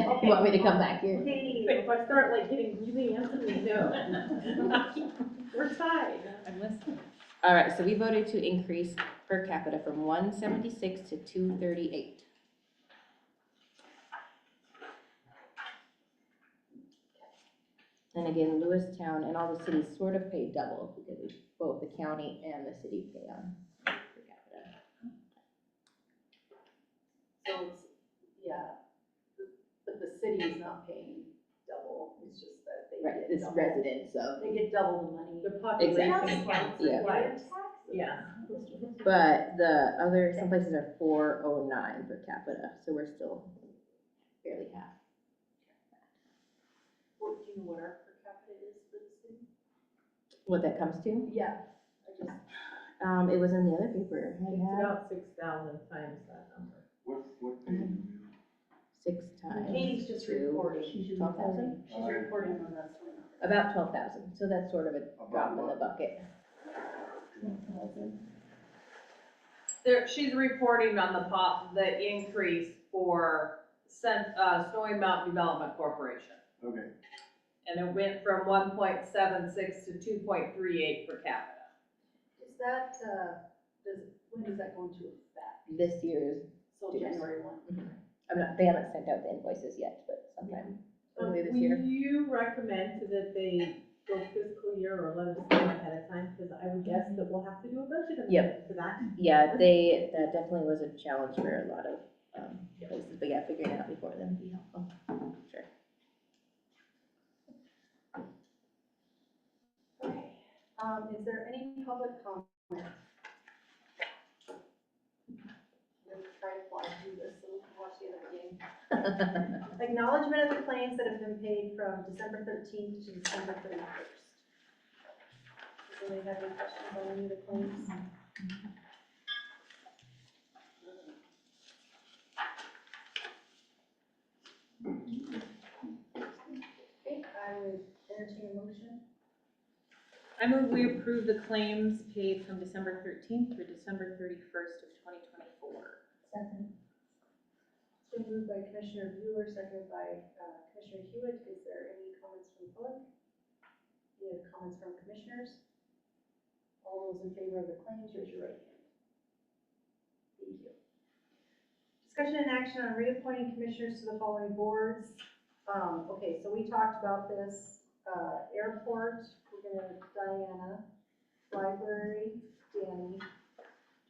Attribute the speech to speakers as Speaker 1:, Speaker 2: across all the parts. Speaker 1: You want me to come back here?
Speaker 2: But if I start like getting really antsy, no. We're tied.
Speaker 3: I'm listening. All right, so we voted to increase per capita from one seventy-six to two thirty-eight. And again, Lewistown and all the cities sort of pay double because both the county and the city pay on per capita.
Speaker 4: So it's, yeah, the- but the city is not paying double, it's just that they
Speaker 1: Right,
Speaker 4: get
Speaker 1: this
Speaker 4: double.
Speaker 1: resident, so,
Speaker 4: They get double the money.
Speaker 2: The population
Speaker 1: Exactly.
Speaker 2: counts
Speaker 1: Yeah.
Speaker 2: as white.
Speaker 4: Yeah.
Speaker 1: but the other, some places are four oh nine per capita, so we're still barely half.
Speaker 4: What, do you know what our per capita is for the city?
Speaker 1: What that comes to,
Speaker 4: Yeah, I just,
Speaker 1: um, it was in the other paper,
Speaker 2: It's
Speaker 1: I had
Speaker 2: about six thousand times that number.
Speaker 5: What, what page? are you
Speaker 1: six times.
Speaker 4: Katie's just
Speaker 1: two,
Speaker 4: reporting, she's
Speaker 1: twelve thousand.
Speaker 4: reporting, she's reporting on that sort of.
Speaker 1: About twelve thousand, so that's sort of a
Speaker 5: About
Speaker 1: drop in the
Speaker 5: what?
Speaker 1: bucket.
Speaker 6: There, she's reporting on the pop, the increase for Cent, uh, Snowy Mountain Development Corporation.
Speaker 5: on? Okay,
Speaker 6: And it went from one point seven six to two point three eight per capita.
Speaker 4: Is that, uh, does, when does that go into effect?
Speaker 1: This year's,
Speaker 4: So
Speaker 1: Yes.
Speaker 4: January one?
Speaker 1: I'm not, they haven't sent out the invoices yet, but sometime
Speaker 2: Um,
Speaker 1: early this
Speaker 2: will
Speaker 1: year.
Speaker 2: you recommend that they go fiscal year or let us know ahead of time? Because I would guess that we'll have to do a budget amendment for that.
Speaker 1: Yeah, they, that definitely was a challenge for a lot of, um, places, but yeah, figuring it out before then would be helpful, sure.
Speaker 4: Okay, um, is there any public comment? I'm gonna try to fly through this, so we can watch the other game. Acknowledgement of the claims that have been paid from December thirteenth to December thirty-first. Does anybody have any questions on any of the claims? Okay, I would entertain a motion.
Speaker 3: I move we approve the claims paid from December thirteenth through December thirty-first of twenty twenty-four.
Speaker 4: Second. It's been moved by Commissioner Bueller, seconded by uh, Commissioner Hewitt. Is there any comments from the public? Any other comments from commissioners? All those in favor of the claims, raise your right hand. Thank you. Discussion and action on reappointing commissioners to the following boards. Um, okay, so we talked about this, uh, airport, we're gonna Diana, library, Danny. Do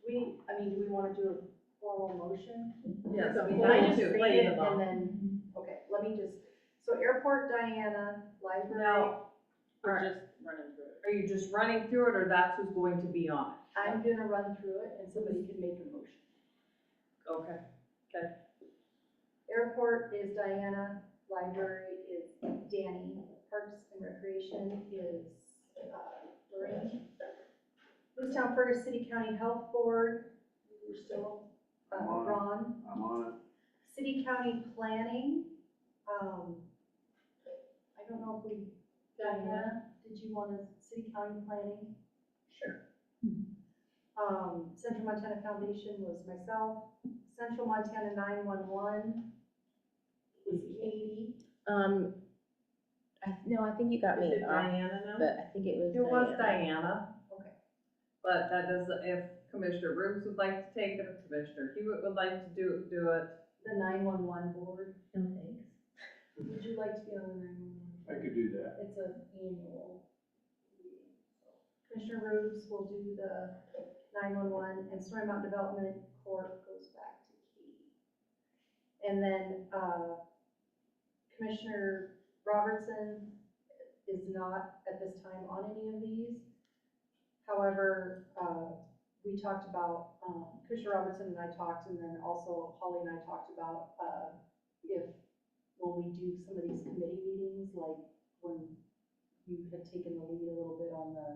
Speaker 4: we, I mean, do we wanna do a formal motion?
Speaker 2: Yeah, so
Speaker 4: I
Speaker 2: we
Speaker 4: mean, I
Speaker 2: need
Speaker 4: just
Speaker 2: to
Speaker 4: read
Speaker 2: play
Speaker 4: it
Speaker 2: the
Speaker 4: and
Speaker 2: ball.
Speaker 4: then, okay, let me just, so airport, Diana, library,
Speaker 6: Now,
Speaker 3: We're
Speaker 6: Alright.
Speaker 3: just running through it.
Speaker 6: are you just running through it or that's who's going to be on it?
Speaker 4: I'm gonna run through it and somebody can make a motion.
Speaker 6: Okay.
Speaker 4: Airport is Diana, library is Danny, parks and recreation is uh, Lorraine. Lewistown Fergus City County Health Board, we're still, uh,
Speaker 5: Come on.
Speaker 4: Ron.
Speaker 5: I'm on it.
Speaker 4: City County Planning, um, I don't know if we, Diana, did you want to, City County Planning? Sure. Um, Central Montana Foundation was myself, Central Montana nine-one-one was Katie.
Speaker 1: Um, I, no, I think you got
Speaker 2: Is
Speaker 1: me
Speaker 2: it
Speaker 1: off,
Speaker 2: Diana now?
Speaker 1: but I think it was
Speaker 6: It was
Speaker 1: Diana.
Speaker 6: Diana.
Speaker 4: Okay.
Speaker 6: But that does, if Commissioner Rubes would like to take it, if Commissioner Hewitt would like to do, do it.
Speaker 4: The nine-one-one board,
Speaker 3: No thanks.
Speaker 4: would you like to be on the nine-one-one?
Speaker 5: I could do that.
Speaker 4: It's an annual. meeting, so. Commissioner Rubes will do the nine-one-one, and Story Mountain Development Corp goes back to Katie. And then, uh, Commissioner Robertson is not at this time on any of these. However, uh, we talked about, um, Commissioner Robertson and I talked, and then also Holly and I talked about, uh, if, when we do some of these committee meetings, like when you had taken the lead a little bit on the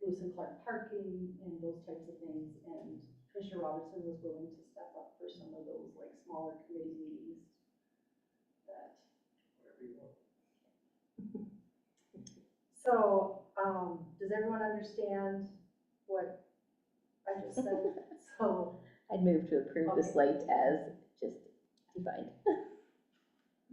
Speaker 4: Lewis and Clark parking and those types of things, and Commissioner Robertson was willing to step up for some of those like smaller committee meetings that. So, um, does everyone understand what I just said? So,
Speaker 1: I'd move to approve the
Speaker 4: Okay.
Speaker 1: slate as just defined.